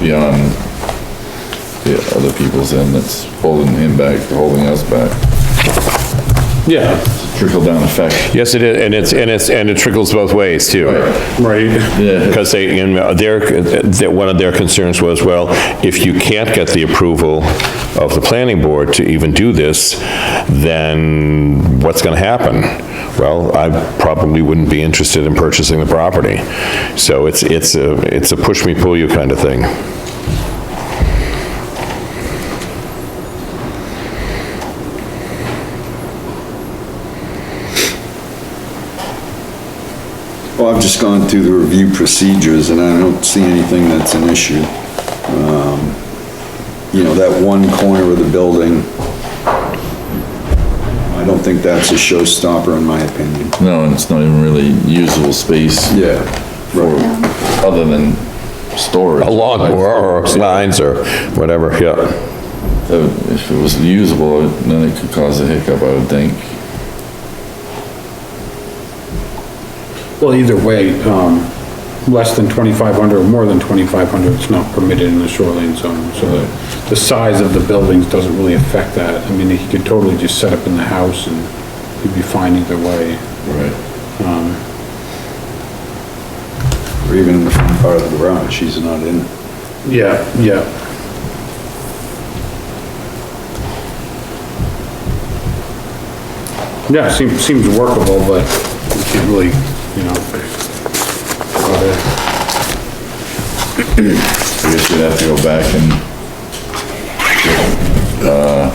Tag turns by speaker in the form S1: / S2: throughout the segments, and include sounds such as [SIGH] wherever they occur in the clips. S1: beyond the other people's end that's holding him back, holding us back.
S2: Yeah,
S1: Trickle down effect.
S2: yes, it is, and it's, and it's, and it trickles both ways too.
S3: Right.
S1: Yeah,
S2: Because they, and their, that one of their concerns was, well, if you can't get the approval of the planning board to even do this, then what's gonna happen? Well, I probably wouldn't be interested in purchasing the property. So it's, it's a, it's a push me, pull you kind of thing.
S4: Well, I've just gone through the review procedures and I don't see anything that's an issue. Um, You know, that one corner of the building, I don't think that's a showstopper in my opinion.
S1: no, and it's not even really usable space.
S4: Yeah.
S1: For, other than storage.
S2: Along or or lines or whatever, yeah.
S1: So If it was usable, then it could cause a hiccup, I would think.
S3: Well, either way, um, less than 2,500 or more than 2,500, it's not permitted in the shoreline zone. So the, the size of the buildings doesn't really affect that. I mean, he could totally just set up in the house and he'd be fine either way.
S1: Right.
S4: Or even in the front part of the garage, he's not in it.
S3: Yeah, yeah. Yeah, seems, seems workable, but you can't really, you know. uh,
S1: I guess we'd have to go back and, uh,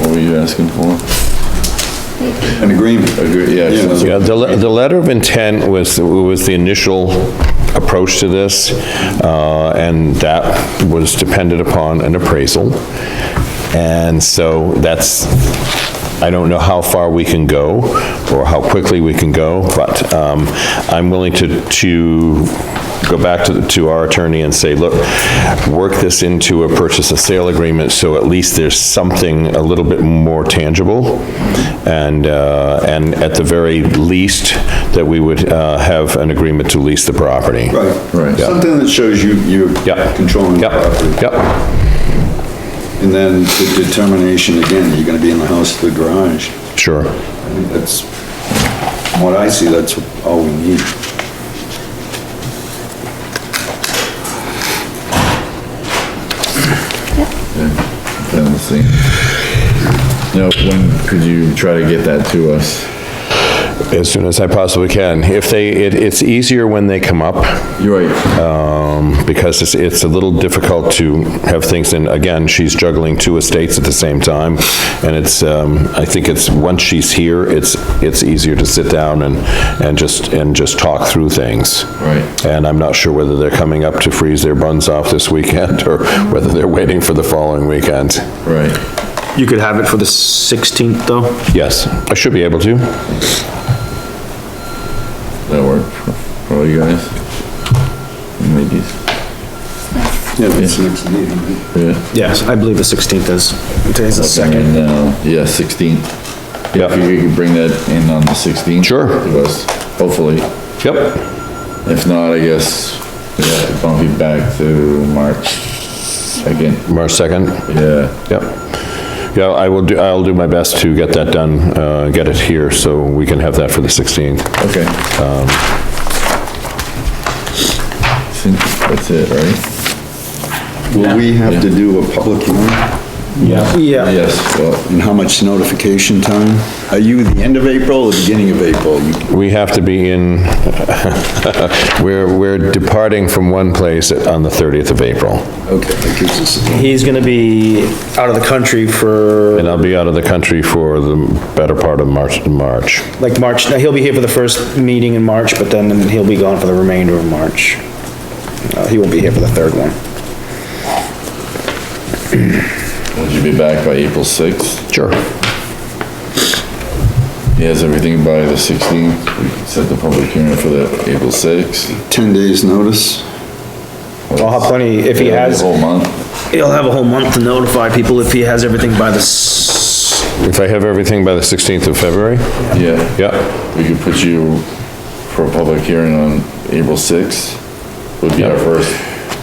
S1: what were you asking for?
S4: An agreement.
S1: Agree, yeah,
S4: Yeah.
S1: so-
S2: Yeah, the, le- the letter of intent was, was the initial approach to this, uh, and that was dependent upon an appraisal. And so that's, I don't know how far we can go, or how quickly we can go, but, um, I'm willing to, to go back to, the- to our attorney and say, look, work this into a purchase and sale agreement, so at least there's something a little bit more tangible. And, uh, and at the very least, that we would, uh, have an agreement to lease the property.
S4: Right.
S1: Right. Yeah.
S4: Something that shows you, you're
S2: Yeah.
S4: controlling the property.
S2: Yep, yep,
S4: And then the determination again, you're gonna be in the house or the garage.
S2: sure.
S4: I think That's, from what I see, that's all we need.
S1: Yeah, let's see. Now, when could you try to get that to us?
S2: As soon as I possibly can. If they, it, it's easier when they come up,
S1: You're right,
S2: um, because it's, it's a little difficult to have things, and again, she's juggling two estates at the same time, and it's, um, I think it's, once she's here, it's, it's easier to sit down and, and just, and just talk through things.
S1: Right.
S2: And I'm not sure whether they're coming up to freeze their buns off this weekend, or [LAUGHS] whether they're waiting for the following weekend.
S1: right.
S5: You could have it for the 16th, though?
S2: Yes, I should be able to.
S1: That work for- for all you guys? Maybe,
S4: Yeah, that's next meeting. right?
S1: yeah.
S5: Yes, I believe the 16th is. Today's the
S1: Second. um, Yeah, 16th. If
S2: Yep,
S1: you could bring that in on the 16th.
S2: Sure.
S1: To us, hopefully.
S2: yep,
S1: If not, I guess we have to bump it back to March 2nd.
S2: March 2nd.
S1: Yeah,
S2: Yep. Yeah, I will do, I'll do my best to get that done, uh, get it here, so we can have that for the 16th.
S1: okay. I
S2: Um.
S1: think that's it, right?
S4: Will we have to do a public hearing?
S5: Yeah.
S1: Yes, well,
S4: And how much notification time? Are you the end of April or the beginning of April? You-
S2: We have to be in, [LAUGHS] we're, we're departing from one place on the 30th of April,
S4: Okay, that gives us, a-
S5: He's gonna be out of the country for,
S2: and I'll be out of the country for the better part of March, March.
S5: like, March, now he'll be here for the first meeting in March, but then he'll be gone for the remainder of March. Uh, he won't be here for the third one.
S1: would you be back by April 6th?
S2: Sure.
S1: He has everything by the 16th. We can set the public hearing for the April 6th.
S4: 10 days notice?
S5: I'll have plenty, if he has,
S1: A whole month.
S5: he'll have a whole month to notify people if he has everything by the s-
S2: If I have everything by the 16th of February?
S1: Yeah.
S2: Yep,
S1: We could put you for a public hearing on April 6th. Would be our first